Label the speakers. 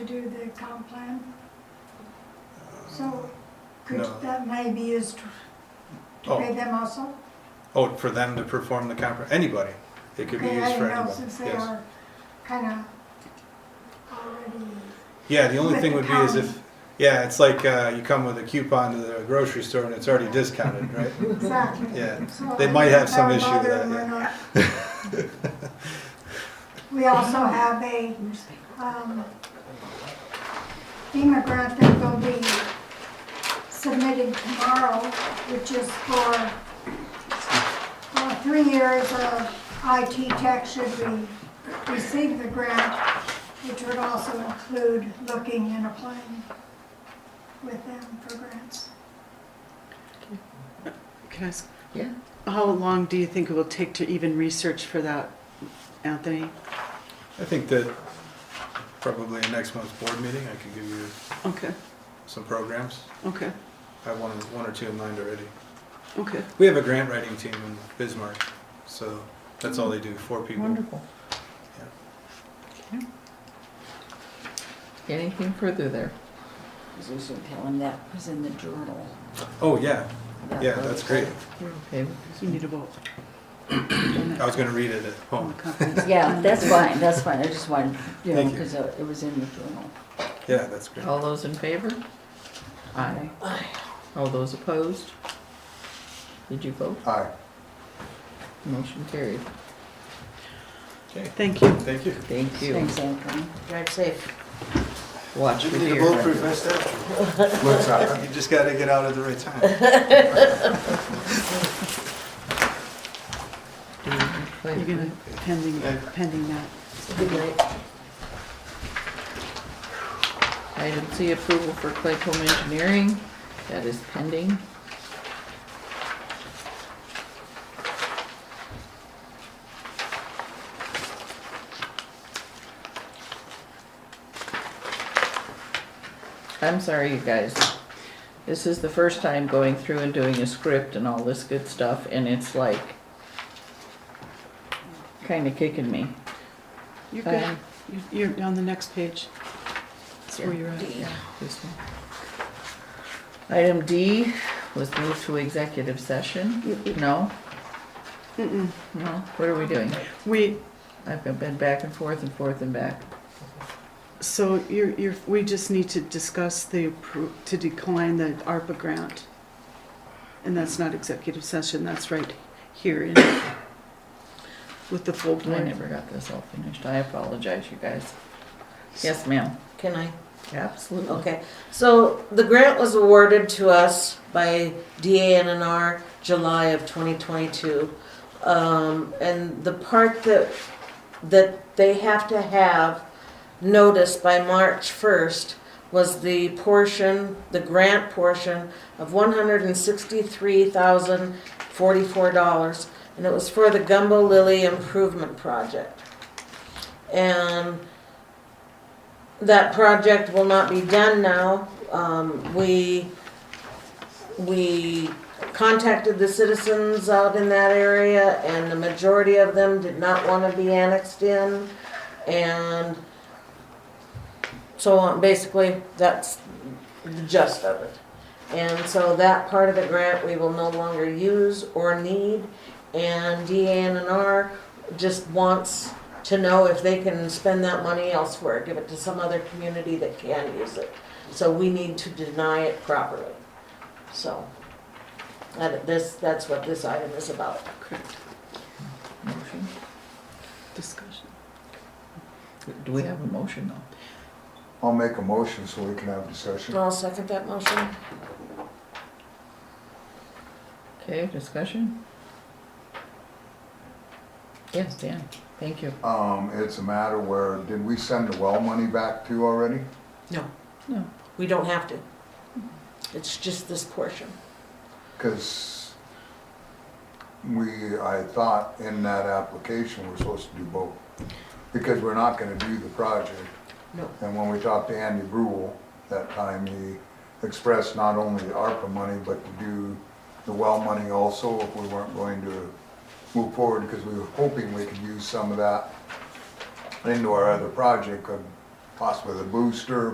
Speaker 1: the town plan? So could,
Speaker 2: no.
Speaker 1: that may be used to- to pay
Speaker 2: Oh,
Speaker 1: them also?
Speaker 2: oh, for them to perform the compre, anybody. It could be
Speaker 1: Okay, I
Speaker 2: used for
Speaker 1: don't know,
Speaker 2: anybody,
Speaker 1: Since they
Speaker 2: yes.
Speaker 1: are kind of already,
Speaker 2: Yeah, the only
Speaker 1: with
Speaker 2: thing
Speaker 1: the
Speaker 2: would be is
Speaker 1: county.
Speaker 2: if, yeah, it's like, uh, you come with a coupon to the grocery store and it's already discounted, right?
Speaker 1: exactly.
Speaker 2: Yeah,
Speaker 1: So
Speaker 2: They
Speaker 1: I
Speaker 2: might
Speaker 1: don't
Speaker 2: have some
Speaker 1: know
Speaker 2: issue with
Speaker 1: whether
Speaker 2: that,
Speaker 1: we're not- We also have a um, FEMA grant that will be submitted tomorrow, which is for uh, three years of IT tech should we receive the grant, which would also include looking and applying with them for grants.
Speaker 3: Can I ask?
Speaker 4: Yeah.
Speaker 3: How long do you think it will take to even research for that, Anthony?
Speaker 2: I think that probably in next month's board meeting, I could give you
Speaker 3: Okay,
Speaker 2: some programs.
Speaker 3: okay,
Speaker 2: I have one, one or two in mind already.
Speaker 3: okay.
Speaker 2: We have a grant writing team in Bismarck, so that's all they do, four people.
Speaker 4: Wonderful. Anything further there?
Speaker 5: Because we should tell him that was in the journal.
Speaker 2: Oh, yeah, yeah,
Speaker 5: was-
Speaker 2: that's great.
Speaker 4: You're okay with
Speaker 3: You need a vote.
Speaker 2: I was gonna read it at
Speaker 3: On
Speaker 2: home.
Speaker 3: the conference.
Speaker 5: Yeah, that's fine, that's fine, I just wanted, you know,
Speaker 2: Thank you.
Speaker 5: because it was in the journal.
Speaker 2: Yeah, that's great.
Speaker 4: it?
Speaker 1: Oh.
Speaker 4: All those in favor? Aye. All those opposed? Did you vote?
Speaker 2: Aye.
Speaker 4: Motion carried.
Speaker 2: Okay,
Speaker 3: Thank you.
Speaker 2: thank you.
Speaker 4: Thank you.
Speaker 5: Thanks, Anthony.
Speaker 6: Drive safe.
Speaker 4: Watch for deer.
Speaker 2: vest after. You just gotta get out at the right time.
Speaker 3: You're
Speaker 4: running.
Speaker 3: gonna pending, pending that.
Speaker 6: Good night.
Speaker 4: Item C, approval for Claycomb Engineering. That is pending. I'm sorry, you guys. This is the first time going through and doing a script and all this good stuff, and it's like kinda kicking me.
Speaker 3: You're good.
Speaker 4: Um,
Speaker 3: You- You're on the next page. That's where you're at.
Speaker 4: This one. Item D was moved to executive session. No,
Speaker 3: Mm-mm.
Speaker 4: no, what are we doing?
Speaker 3: We,
Speaker 4: I've been back and forth and forth and back.
Speaker 3: so you're, you're, we just need to discuss the, appro- to decline the ARPA grant. And that's not executive session, that's right here in, with the full
Speaker 4: I
Speaker 3: board.
Speaker 4: never got this all finished. I apologize, you guys. Yes, ma'am.
Speaker 6: Can I?
Speaker 4: Absolutely.
Speaker 6: Okay. So the grant was awarded to us by DANR July of 2022. Um, and the part that, that they have to have noticed by March 1st was the portion, the grant portion of $163,044. And it was for the Gumbo Lily Improvement Project. And that project will not be done now. Um, we, we contacted the citizens out in that area and the majority of them did not want to be annexed in. And so on, basically, that's the gist of it. And so that part of the grant we will no longer use or need. And DANR just wants to know if they can spend that money elsewhere, give it to some other community that can use it. So we need to deny it properly. So, that, this, that's what this item is about.
Speaker 3: Correct.
Speaker 4: Motion.
Speaker 3: Discussion.
Speaker 4: Do we have a motion though?
Speaker 7: I'll make a motion so we can have discussion.
Speaker 6: I'll second that motion.
Speaker 4: Okay, discussion? Yes, Dan, thank you.
Speaker 7: Um, it's a matter where, did we send the well money back to you already?
Speaker 6: No.
Speaker 4: No.
Speaker 6: We don't have to. It's just this portion.
Speaker 7: Cause we, I thought in that application, we're supposed to do both. Because we're not gonna do the project.
Speaker 6: No.
Speaker 7: And when we talked to Andy Brule, that time he expressed not only the ARPA money, but to do the well money also if we weren't going to move forward, because we were hoping we could use some of that into our other project, uh, possibly the booster,